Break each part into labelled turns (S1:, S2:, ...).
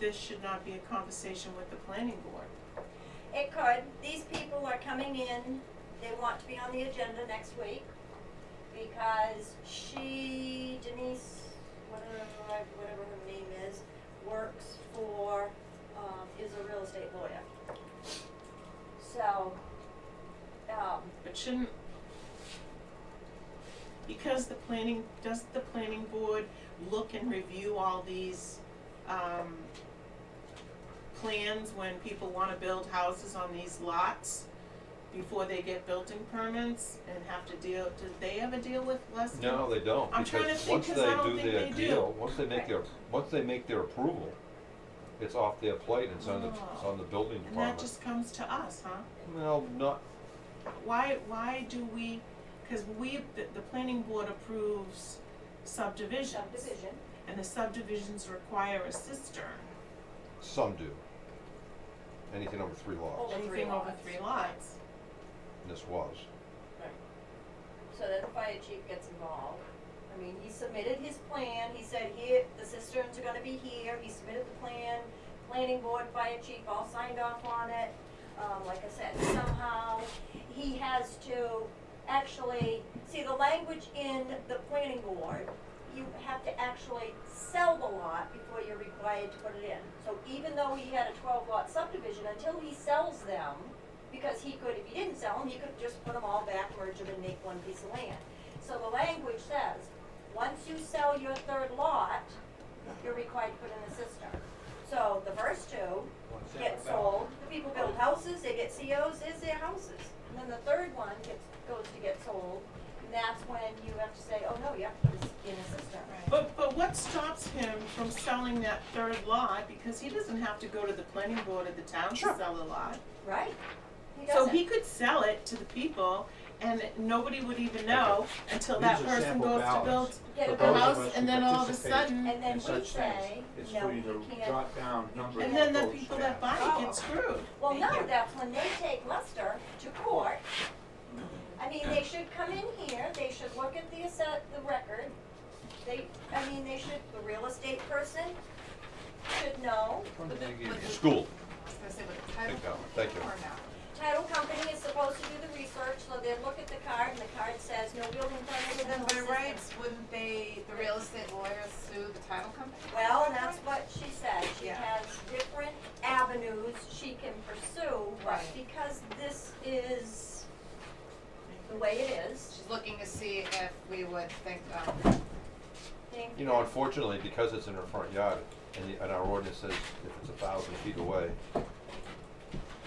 S1: this should not be a conversation with the planning board.
S2: It could, these people are coming in, they want to be on the agenda next week, because she, Denise, whatever, whatever her name is, works for, um, is a real estate lawyer. So, um,
S1: But shouldn't, because the planning, does the planning board look and review all these, um, plans when people wanna build houses on these lots before they get building permits and have to deal, do they ever deal with less?
S3: No, they don't,
S1: I'm trying to
S3: because
S1: think,
S3: once they
S1: 'cause I don't
S3: do
S1: think
S3: their
S1: they do.
S3: deal, once they make their, once they make their approval, it's off their plate, it's on the, it's
S1: Oh.
S3: on the building
S1: And that
S3: department.
S1: just comes to us, huh?
S3: Well, not,
S1: Why, why do we, cause we, the, the planning board approves subdivisions.
S2: subdivision,
S1: And the subdivisions require a cistern,
S3: some do. Anything over three lots,
S2: Over three
S1: anything over
S2: lots.
S1: three lots.
S3: and this was.
S2: so that the fire chief gets involved. I mean, he submitted his plan, he said here, the cisterns are gonna be here, he submitted the plan, planning board, fire chief all signed off on it. Um, like I said, somehow, he has to actually, see, the language in the planning board, you have to actually sell the lot before you're required to put it in. So even though he had a twelve lot subdivision, until he sells them, because he could, if he didn't sell them, he could just put them all back, merge them and make one piece of land. So the language says, once you sell your third lot, you're required to put in a cistern. So the first two
S4: What's that
S2: get
S4: about?
S2: sold, the people build houses, they get COs, is their houses. And then the third one gets, goes to get sold, and that's when you have to say, oh no, you have to put it in a cistern.
S1: But, but what stops him from selling that third lot, because he doesn't have to go to the planning board of the town to
S2: Sure.
S1: sell a lot?
S2: Right? He
S1: So
S2: doesn't.
S1: he could sell it to the people, and nobody would even know until that
S4: These are
S1: person
S4: sample
S1: goes to build
S4: ballots.
S2: Get a
S4: For
S1: the
S4: those of
S2: bill.
S1: house,
S4: us who
S1: and then all of a
S4: participate
S1: sudden,
S2: And then
S4: in
S2: we
S4: such
S2: say,
S4: things, it's
S2: no,
S4: for you
S2: you
S4: to
S2: can't.
S4: jot down numbers
S1: and then
S4: of
S1: the
S4: votes
S1: people that
S4: cast.
S1: buy it
S2: Oh.
S1: get screwed.
S2: Well,
S1: They
S2: no,
S1: get-
S2: that's when they take Lester to court. I mean, they should come in here, they should look at the asset, the record. They, I mean, they should, the real estate person should know.
S5: With the- with the-
S3: School,
S5: I was gonna say, with the
S3: Big
S5: title.
S3: government. Thank you.
S5: Or not.
S2: Title company is supposed to do the research, so they look at the card and the card says no building permit
S5: And
S2: and
S5: then
S2: no
S5: by
S2: system.
S5: rights, wouldn't they, the real estate lawyers sue the title company?
S2: Well, and that's what she said, she
S5: Yeah.
S2: has different avenues she can pursue, but
S5: Right.
S2: because this is the way it is,
S5: She's looking to see if we would think, um,
S2: think.
S3: you know, unfortunately, because it's in her front yard, and, the- and our ordinance says if it's a thousand feet away,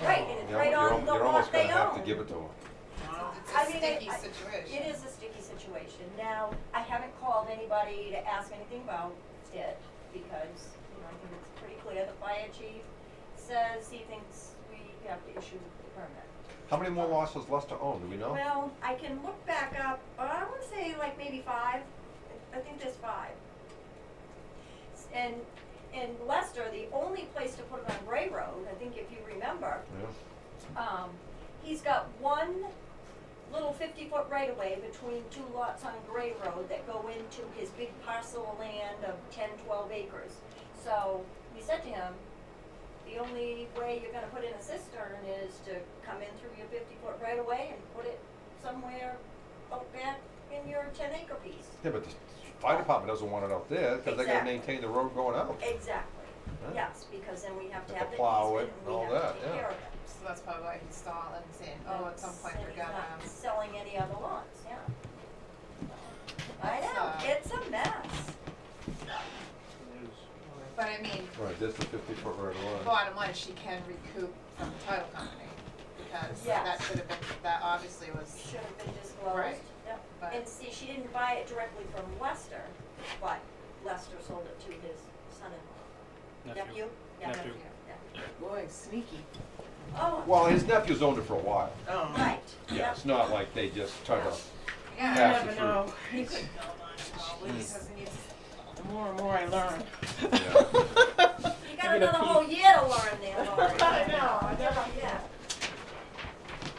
S2: Right, and it's
S3: you're,
S2: right
S3: you're,
S2: on
S3: al-
S2: the
S3: you're almost
S2: lot
S3: gonna
S2: they
S3: have to
S2: own.
S3: give it to her.
S1: Wow.
S5: it's
S2: I
S5: a
S2: mean,
S5: sticky
S2: I- I-
S5: situation.
S2: It is a sticky situation. Now, I haven't called anybody to ask anything about it because, you know, I think it's pretty clear. The fire chief says he thinks we have to issue the permit.
S3: How many more lots does Lester own, do we know?
S2: Well, I can look back up, but I wanna say like maybe five, I think there's five. S- And, and Lester, the only place to put it on Gray Road, I think if you remember,
S3: Yeah.
S2: um, he's got one little fifty-foot right-of-way between two lots on Gray Road that go into his big parcel of land of 10, 12 acres. So, we said to him, the only way you're gonna put in a cistern is to come in through your fifty-foot right-of-way and put it somewhere out back in your ten-acre piece.
S3: Yeah, but the fire department doesn't want it out there, cause they gotta
S2: Exactly.
S3: maintain the road going out.
S2: Exactly,
S3: Huh?
S2: yes, because then we have to have
S3: Have to
S2: the
S3: plow
S2: easement
S3: it and
S2: and
S3: all
S2: we have
S3: that,
S2: to
S3: yeah.
S2: take care of it.
S5: So that's probably why he's stalling, saying, oh, at some point we're
S2: And he's
S5: gonna,
S2: not selling any other lots, yeah. I
S5: That's,
S2: know,
S5: uh,
S2: it's a mess.
S4: It is.
S5: but I mean,
S3: Right, that's the fifty foot right of way.
S5: bottom line, she can recoup from the title company, because
S2: Yes.
S5: that should have been, that obviously was,
S2: Should have been disclosed,
S5: Right.
S2: yep.
S5: But-
S2: And see, she didn't buy it directly from Lester, but Lester sold it to his son-in-law. Nephew? Yeah.
S6: Nephew.
S1: Boy, sneaky.
S2: Oh,
S3: Well, his nephew's owned it for a while.
S1: Oh.
S2: right,
S3: Yeah,
S2: yep.
S3: it's not like they just try to,
S1: You
S5: yeah.
S3: Pass it
S1: never
S3: through.
S1: know.
S5: He could build on it probably, because he needs
S1: The more and more I learn.
S3: yeah.
S2: You got another whole year to learn there, Lori.
S1: I know, I know.
S2: Yeah.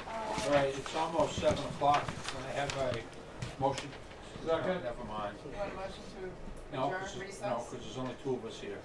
S2: Uh,
S4: All right, it's almost seven o'clock, can I have a motion? No, Never mind.
S5: one motion to
S4: No,
S5: adjourn
S4: because,
S5: recess.
S4: no, because there's only two of us here.